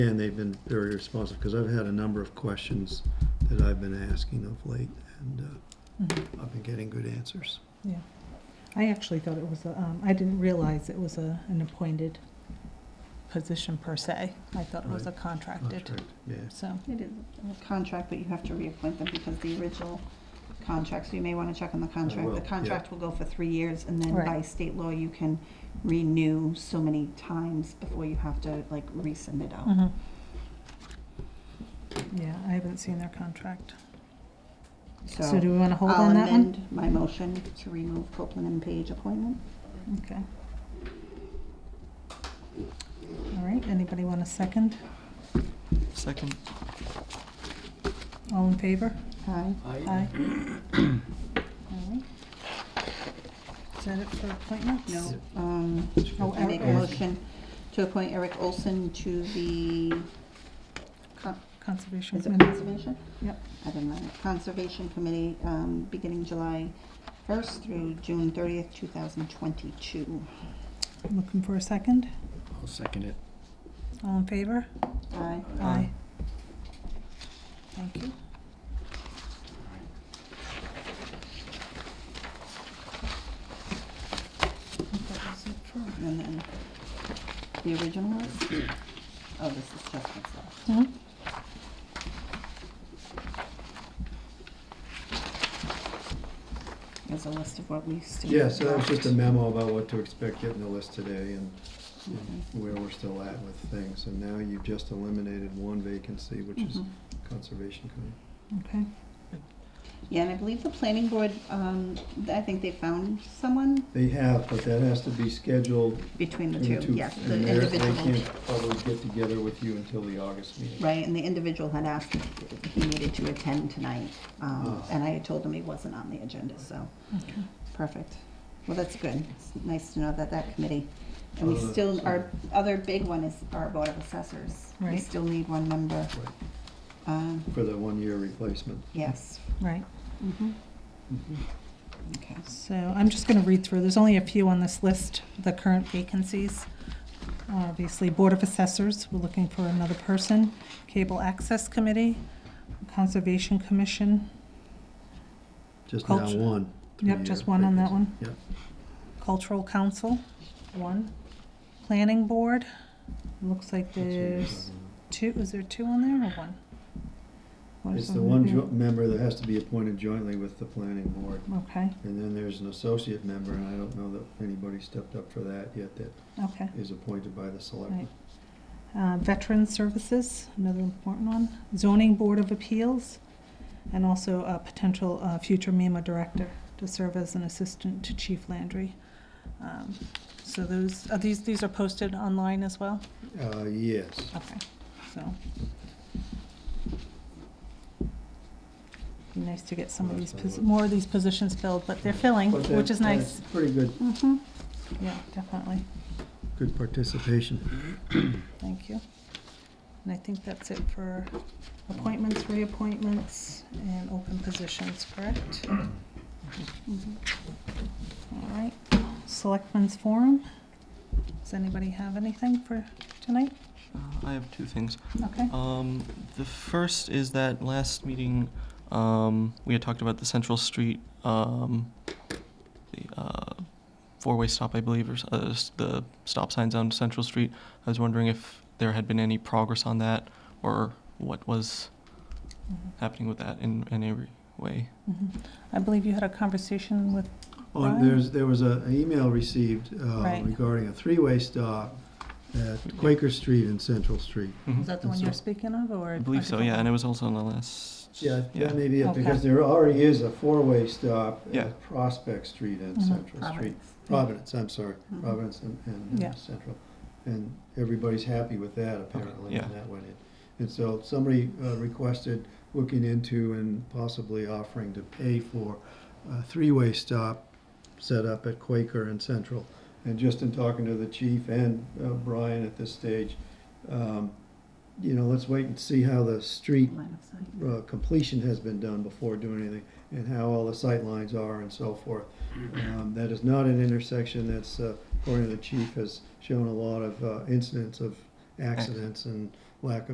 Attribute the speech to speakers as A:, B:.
A: And they've been very responsive, because I've had a number of questions that I've been asking of late, and uh, I've been getting good answers.
B: Yeah, Mm-hmm. I actually thought it was, a, um, I didn't realize it was a, an appointed position per se. I thought it was a
A: Right.
B: contracted,
A: Contract, Yeah.
B: so,
C: It is a contract, but you have to reappoint them because the original contract, so you may wanna check on the contract.
A: will,
C: The
A: yeah.
C: contract will go for three years, and then
B: Right.
C: by state law, you can renew so many times before you have to, like, resend it out.
B: mhm. yeah, I haven't seen their contract. So do we want to hold
C: I'll
B: on that one?
C: amend my motion to remove Copeland and Page appointment.
B: Okay. All right, anybody want a second?
D: Second.
B: All in favor?
C: Aye.
B: Aye. All right. Is that it for appointments?
C: No, um,
B: Oh,
C: I make a
B: Eric.
C: motion to appoint Eric Olson to the con-
B: Conservation
C: Is it
B: Committee?
C: conservation?
B: Yep.
C: I didn't mind. Conservation Committee, um, beginning July first through June thirtieth, two thousand twenty-two.
B: Looking for a second?
D: I'll second it.
B: All in favor?
C: Aye.
B: Aye. Thank you.
C: And then the original list? Oh, this is just what's left. There's a list of what we still.
A: Yeah, so that was just a memo about what to expect getting the list today and and
C: Mm-hmm.
A: where we're still at with things. And now you've just eliminated one vacancy, which is
C: Mhm.
A: Conservation Committee.
B: Okay,
C: Yeah, and I believe the planning board, um, I think they found someone
A: They have, but that has to be scheduled
C: between the
A: between the
C: two,
A: two.
C: yes, the
A: and they're-
C: individual.
A: They can't probably get together with you until the August meeting.
C: Right, and the individual had asked if he needed to attend tonight, um,
A: Oh.
C: and I had told him he wasn't on the agenda, so,
B: okay.
C: perfect. Well, that's good, it's nice to know that that committee, and we
A: Uh,
C: still,
A: so-
C: our other big one is our Board of Assessors. We
B: Right.
C: still need one member,
A: Right,
C: um,
A: For the one-year replacement. Mm-hmm.
C: yes.
B: Right,
C: Mhm. Okay,
B: so I'm just gonna read through, there's only a few on this list, the current vacancies. Obviously, Board of Assessors, we're looking for another person, Cable Access Committee, Conservation Commission,
A: Just now
B: Culture.
A: one.
B: Yep, just
A: three-year
B: one on that
A: vacancy. Yep.
B: Cultural Council, one, Planning Board, looks like
A: that's what you're
B: there's
A: talking about.
B: two, is there two on there or one? What is
A: It's the one
B: there?
A: jo- member that has to be appointed jointly with the planning board.
B: Okay,
A: And then there's an associate member, and I don't know that anybody stepped up for that yet, that
B: okay.
A: is appointed by the selectmen.
B: Uh, Veteran Services, another important one, Zoning Board of Appeals, and also a potential uh, future MEMA director to serve as an assistant to Chief Landry. Um, So those, are these, these are posted online as well?
A: Uh, yes,
B: Okay, so. Be nice to get some of these, posi- more of these positions filled, but they're filling,
A: But
B: which
A: that-
B: is nice. Mm-hmm.
A: that's Pretty good,
C: mhm,
B: Yeah, definitely.
A: good participation.
B: Thank you. And I think that's it for appointments, reappointments, and open positions, correct? All
C: mhm.
B: right. Selectmen's Forum. Does anybody have anything for tonight?
D: Uh, I have two things.
B: Okay.
D: Um, the first is that last meeting, um, we had talked about the Central Street, um, the, uh, four-way stop, I believe, or, s- uh, s- the stop signs on Central Street. I was wondering if there had been any progress on that, or what was happening with that in, in any way.
B: Mhm. Mm-hmm. I believe you had a conversation with,
A: Oh, and
B: Right.
A: there's, there was a, an email received, uh,
B: Right.
A: regarding a three-way stop at Quaker Street and Central Street.
B: is that the one you're speaking of, or?
D: I believe so, yeah, and it was also on the last.
A: Yeah, that may be it,
B: Okay.
A: because there already is a four-way stop
D: Yeah.
A: at Prospect Street and
B: Mhm.
A: Central Street.
C: Providence.
A: Providence, I'm sorry,
C: Mhm.
A: Providence and, and
B: Mm-hmm. Yeah.
A: uh, Central. And everybody's happy with that apparently,
D: yeah.
A: and that went in. And so somebody uh, requested looking into and possibly offering to pay for a three-way stop set up at Quaker and Central. And just in talking to the chief and uh, Brian at this stage, um, you know, let's wait and see how the street
C: Line of sight.
A: uh, completion has been done before doing anything, and how all the sight lines are and so forth. Um, That is not an intersection that's, uh, according to the chief, has shown a lot of uh, incidents of accidents and lack of.